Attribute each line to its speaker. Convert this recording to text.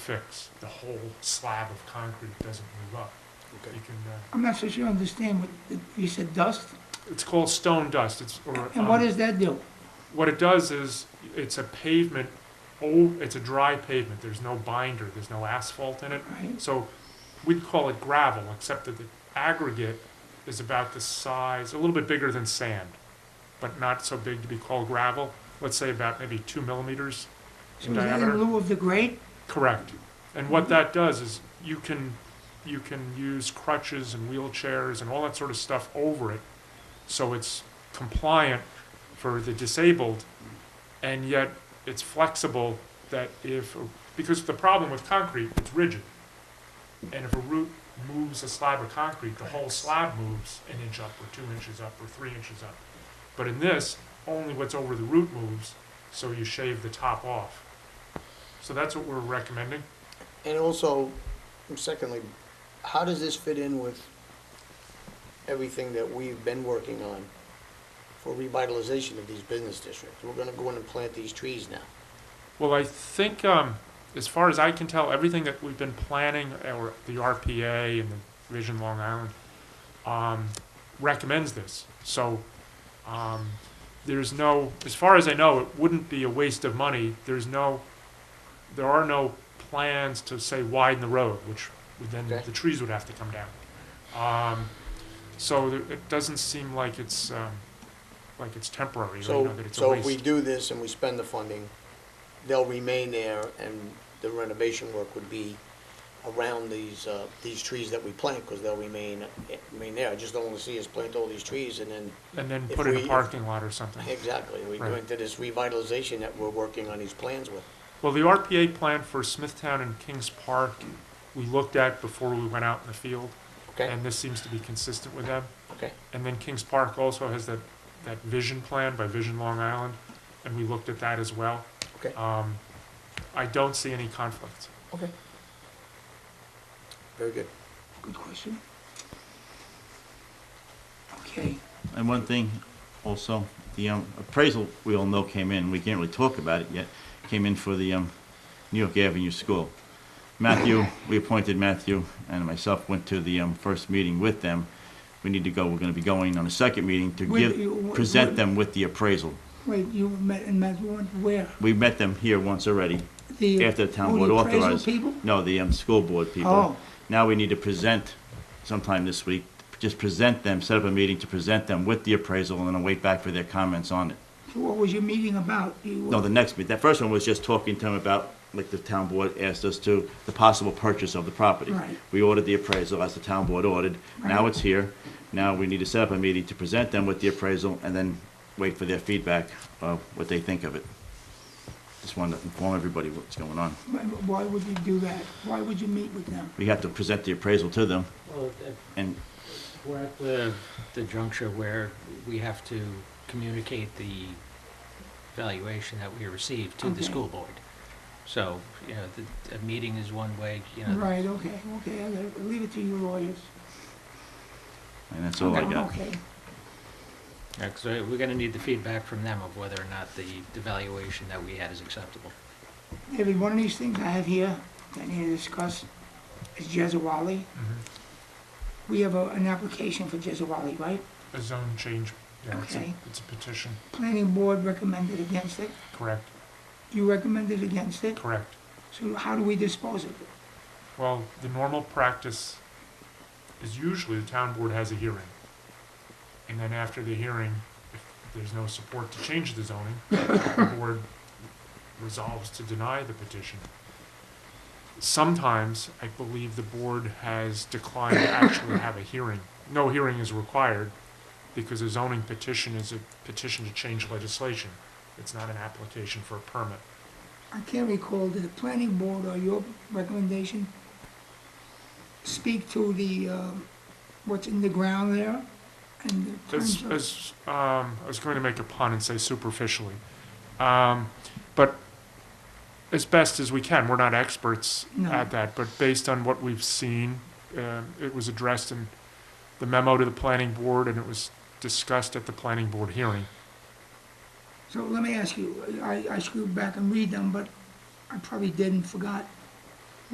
Speaker 1: fix, the whole slab of concrete doesn't move up.
Speaker 2: Okay.
Speaker 1: You can, uh,
Speaker 3: I'm not so sure I understand what, you said dust?
Speaker 1: it's called stone dust, it's, or.
Speaker 4: Uh-huh.
Speaker 3: And what
Speaker 1: um,
Speaker 3: does that do?
Speaker 1: What it does is, it's a pavement, oh, it's a dry pavement, there's no binder, there's no asphalt in it.
Speaker 3: Right,
Speaker 1: So we'd call it gravel, except that the aggregate is about the size, a little bit bigger than sand, but not so big to be called gravel. Let's say about maybe two millimeters
Speaker 3: so
Speaker 1: in
Speaker 3: is that in
Speaker 1: diameter.
Speaker 3: lieu of the grate?
Speaker 1: Correct. And what that does is you can, you can use crutches and wheelchairs and all that sort of stuff over it. So it's compliant for the disabled and yet it's flexible that if, because the problem with concrete, it's rigid. And if a root moves a slab of concrete, the whole slab moves an inch up or two inches up or three inches up. But in this, only what's over the root moves, so you shave the top off. So that's what we're recommending.
Speaker 2: And also, secondly, how does this fit in with everything that we've been working on for revitalization of these business districts? We're gonna go in and plant these trees now.
Speaker 1: Well, I think, um, as far as I can tell, everything that we've been planning, uh, or the RPA and the Vision Long Island, um, recommends this. So, um, there's no, as far as I know, it wouldn't be a waste of money. There's no, there are no plans to say widen the road, which would then
Speaker 2: Okay.
Speaker 1: the trees would have to come down. Um, so there, it doesn't seem like it's, um, like it's temporary, or, you know,
Speaker 2: So,
Speaker 1: that it's a
Speaker 2: so
Speaker 1: waste.
Speaker 2: if we do this and we spend the funding, they'll remain there and the renovation work would be around these, uh, these trees that we plant, cause they'll remain, remain there. I just don't wanna see us plant all these trees and then
Speaker 1: And then
Speaker 2: if
Speaker 1: put in
Speaker 2: we-
Speaker 1: a parking lot or something.
Speaker 2: Exactly, we go
Speaker 1: Right.
Speaker 2: into this revitalization that we're working on these plans with.
Speaker 1: Well, the RPA plan for Smithtown and Kings Park, we looked at before we went out in the field,
Speaker 2: Okay,
Speaker 1: and this seems to be consistent with them.
Speaker 2: okay,
Speaker 1: And then Kings Park also has that, that vision plan by Vision Long Island, and we looked at that as well.
Speaker 2: okay,
Speaker 1: Um, I don't see any conflict.
Speaker 2: okay. Very good.
Speaker 3: Good question. Okay,
Speaker 4: And one thing also, the um, appraisal we all know came in, we can't really talk about it yet, came in for the um, New York Avenue School. Matthew, we appointed Matthew and myself went to the um, first meeting with them. We need to go, we're gonna be going on a second meeting to
Speaker 3: Wait, you-
Speaker 4: give,
Speaker 3: wh-
Speaker 4: present
Speaker 3: wh-
Speaker 4: them with the appraisal.
Speaker 3: wait, you met, and met one, where?
Speaker 4: We met them here once already,
Speaker 3: The-
Speaker 4: after the town
Speaker 3: who,
Speaker 4: board
Speaker 3: the appraisal
Speaker 4: authorized.
Speaker 3: people?
Speaker 4: No, the um, school board
Speaker 3: Oh.
Speaker 4: people. Now we need to present sometime this week, just present them, set up a meeting to present them with the appraisal and then wait back for their comments on it.
Speaker 3: So what was your meeting about? You-
Speaker 4: No, the next meeting. That first one was just talking to him about, like the town board asked us to, the possible purchase of the property.
Speaker 3: Right.
Speaker 4: We ordered the appraisal as the town board ordered. Now
Speaker 3: Right.
Speaker 4: it's here. Now we need to set up a meeting to present them with the appraisal and then wait for their feedback of what they think of it. Just wanted to inform everybody what's going on.
Speaker 3: Why why would you do that? Why would you meet with them?
Speaker 4: We have to present the appraisal to them
Speaker 5: Well, at-
Speaker 4: and
Speaker 5: we're at the, the juncture where we have to communicate the valuation that we received to
Speaker 3: Okay.
Speaker 5: the school board. So, you know, the, a meeting is one way, you know.
Speaker 3: Right, okay, okay, I'll let- leave it to you lawyers.
Speaker 4: And that's all I
Speaker 3: Okay,
Speaker 4: got.
Speaker 3: Okay,
Speaker 5: Because we're gonna need the feedback from them of whether or not the, the valuation that we had is acceptable.
Speaker 3: David, one of these things I have here that I need to discuss is Jezawali. We have a- an application for Jezawali, right?
Speaker 1: A zone change, yeah, it's a,
Speaker 3: Okay.
Speaker 1: it's a petition,
Speaker 3: Planning board recommended against it.
Speaker 1: correct,
Speaker 3: You recommended against it.
Speaker 1: correct.
Speaker 3: So how do we dispose of it?
Speaker 1: Well, the normal practice is usually the town board has a hearing. And then after the hearing, if there's no support to change the zoning, the board resolves to deny the petition. Sometimes, I believe the board has declined to actually have a hearing. No hearing is required because a zoning petition is a petition to change legislation. It's not an application for a permit.
Speaker 3: I can't recall, did the planning board or your recommendation speak to the, um, what's in the ground there? And the
Speaker 1: As,
Speaker 3: terms of-
Speaker 1: as, um, I was going to make a pun and say superficially. Um, but as best as we can, we're not experts
Speaker 3: No.
Speaker 1: at that, but based on what we've seen, um, it was addressed in the memo to the planning board and it was discussed at the planning board hearing.
Speaker 3: So let me ask you, I, I screwed back and read them, but I probably didn't, forgot.